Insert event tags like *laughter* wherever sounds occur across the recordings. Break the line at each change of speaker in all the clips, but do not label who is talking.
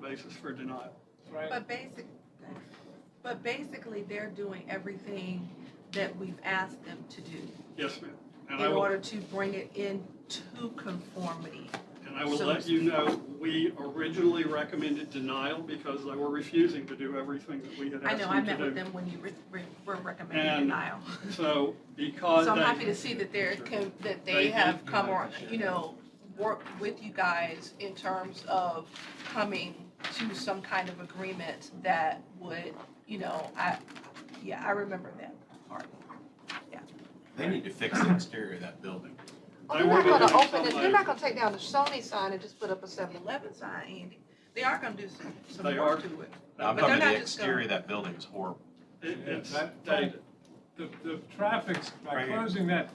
basis for denial.
Right,
But basic, but basically, they're doing everything that we've asked them to do
Yes, ma'am. And I
in
will-
order to bring it into conformity.
And I will
So-
let you know, we originally recommended denial because they were refusing to do everything that we had
I
asked them to do.
know, I met with them when you re- re- were
And-
recommending denial. *laughs*
So because
So I'm
they-
happy to see that they're, con- that
They
they
do
have
do
come
like
on,
to share.
you know, worked with you guys in terms of coming to some kind of agreement that would, you know, I, yeah, I remember that part.
They need to fix the exterior of that building.
I
They're not
wouldn't
gonna
do it
open it, they're
somebody-
not gonna take down the Sony sign and just put up a
The
seven.
eleven sign, Andy, they are gonna do some, some
They
work
are.
to it.
Now, I'm
But they're
talking about
not
the
just gonna-
exterior of that building is horrible.
it- It's
That-
dated.
the, the traffic's, by
Right here.
closing that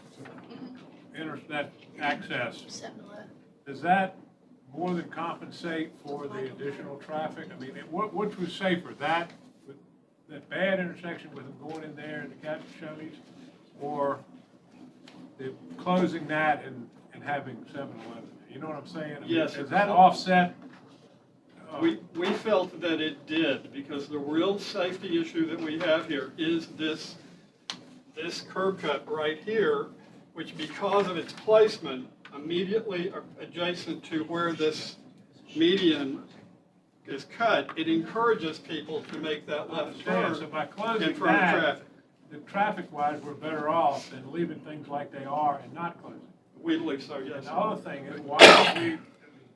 inter, that access, does that more than compensate for the additional traffic? I mean, it- what, which was safer, that, with that bad intersection with them going in there and the Captain Chevys? Or the, closing that and, and having 7-Eleven? You know what I'm saying? I mean,
Yes.
Does that offset? uh,
We, we felt that it did, because the real safety issue that we have here is this, this curb cut right here, which because of its placement, immediately adjacent to where this median is cut, it encourages people to make that
I
left
understand.
turn.
So by
in
closing
front of
that,
traffic.
the traffic wise, we're better off than leaving things like they are and not closing.
We believe so,
And
yes.
the other thing is, why don't we,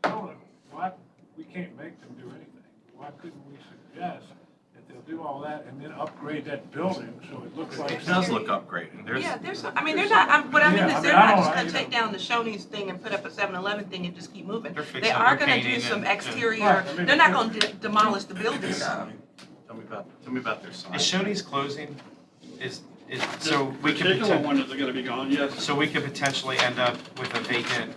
don't- why, we can't make them do anything. Why couldn't we suggest that they'll do all that and then upgrade that building so it looks like.
It does look upgraded. There's,
Yeah, there's, I mean, they're not, I'm- what I mean
Yeah,
is
I
they're
mean, I
not
don't-
just
you
gonna
know.
take down the Shoney's thing and put up a 7-Eleven thing and just keep moving.
They're
They
fixing
are
their
gonna do
painting
some
and-
exterior,
Right, I mean,
they're not
it's-
gonna de- demolish the building though.
tell me about, tell me about their sign.
Is Shoney's closing, is, is, so
This
we could,
Particular
poten-
one is gonna be gone, yes.
so we could potentially end up with a vacant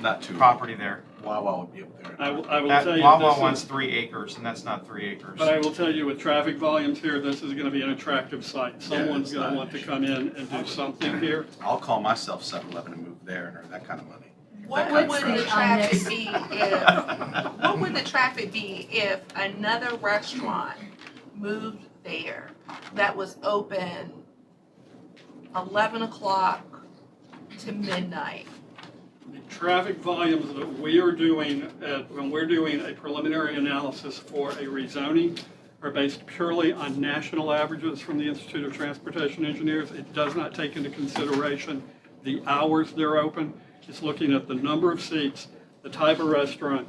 Not too,
property there.
Wawa would be up there.
I will, I will
That
tell you. this
Wawa
is-
wants three acres, and that's not three acres.
But I will tell you, with traffic volumes here, this is gonna be an attractive site. Someone's
it's not
gonna
an
want to
issue.
come in and do something here.
I'll call myself 7-Eleven and move there and earn that kind of money.
What
That
would
kind
of
the
trash.
traffic be if,
*laughs*
what would the traffic be if another restaurant moved there that was open eleven o'clock to midnight?
The traffic volumes that we are doing, at- when we're doing a preliminary analysis for a rezoning, are based purely on national averages from the Institute of Transportation Engineers. It does not take into consideration the hours they're open. It's looking at the number of seats, the type of restaurant,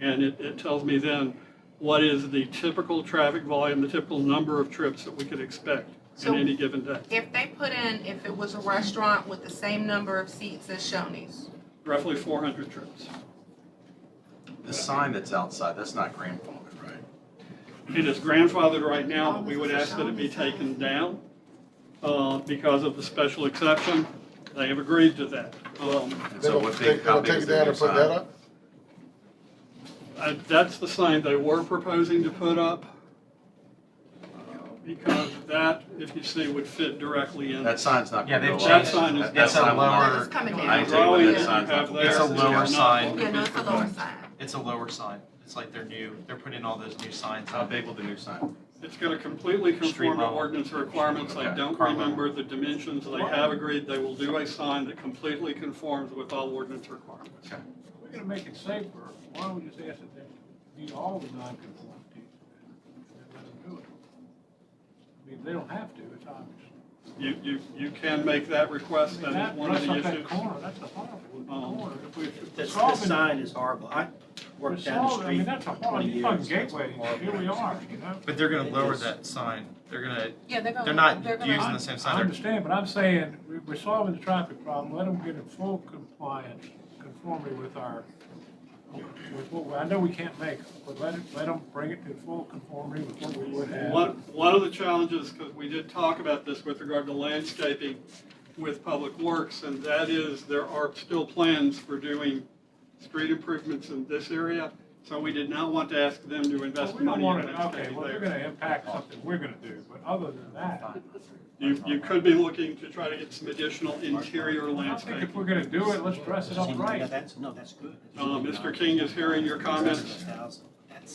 and it, it tells me then what is the typical traffic volume, the typical number of trips that we could expect
So-
in any given day.
If they put in, if it was a restaurant with the same number of seats as Shoney's,
Roughly 400 trips.
The sign that's outside, that's not grandfathered, right?
It is grandfathered right now, but we would ask that it be taken down uh, because of the special exception. They have agreed to that. Um,
And
They're
so
gonna
what
they're
big, how
gonna
big
take
is
it
the
down
new
and put that
sign?
up?
I- That's the sign they were proposing to put up uh, because that, if you see, would fit directly in.
That sign's not
Yeah,
gonna go
they've
up.
changed- That sign is-
That- that
It's a
sign will not-
lower,
it's coming down.
I tell you what, that
Yeah.
sign's not.
It's a
gonna go up.
lower
Yeah.
sign.
yeah, no, it's a lower sign.
it's a lower sign. It's like they're new, they're putting all those new signs
How
up.
big will the new sign?
It's going to completely
Street
conform to
level.
ordinance requirements. I
Okay.
don't
Car level.
remember the dimensions. They have agreed they will do a sign that completely conforms with all ordinance requirements.
We're gonna make it safer, why don't we just ask that they meet all the non-conformities? and let them do it? I mean, they don't have to, it's obvious.
You, you, you can make that request,
I mean,
that is
that
one of
mess
the
up that
issues.
corner, that's a horrible
Um,
corner. If we- if we're
This,
solving-
this sign is horrible. I
we're
worked down the
solving- I mean,
street
that's a
for
horrible,
twenty
you
years.
fucking
That's
gateway,
horrible.
here we are, you know?
But they're gonna
It
lower
is.
that sign. They're gonna,
Yeah, they're gonna.
they're not
gonna-
using the same sign.
I
They're-
understand, but I'm saying, we- we're solving the traffic problem, let them get in full compliance, conformity with our, with what, we- I know we can't make, them, but let it, let them bring it to full conformity with what we would have.
One, one of the challenges, because we did talk about this with regard to landscaping with Public Works, and that is there are still plans for doing street improvements in this area, so we did not want to ask them to
Well,
invest
We don't
money
want
in
it, okay,
landscaping
well, they're
there.
gonna impact something we're gonna do, but other than that,
You, you could be looking to try to get some additional interior
I think if
landscaping.
we're gonna do it, let's dress it up
See,
right.
yeah, That's, no, that's good.
Uh, Mr. King is hearing your comments.
Thousand.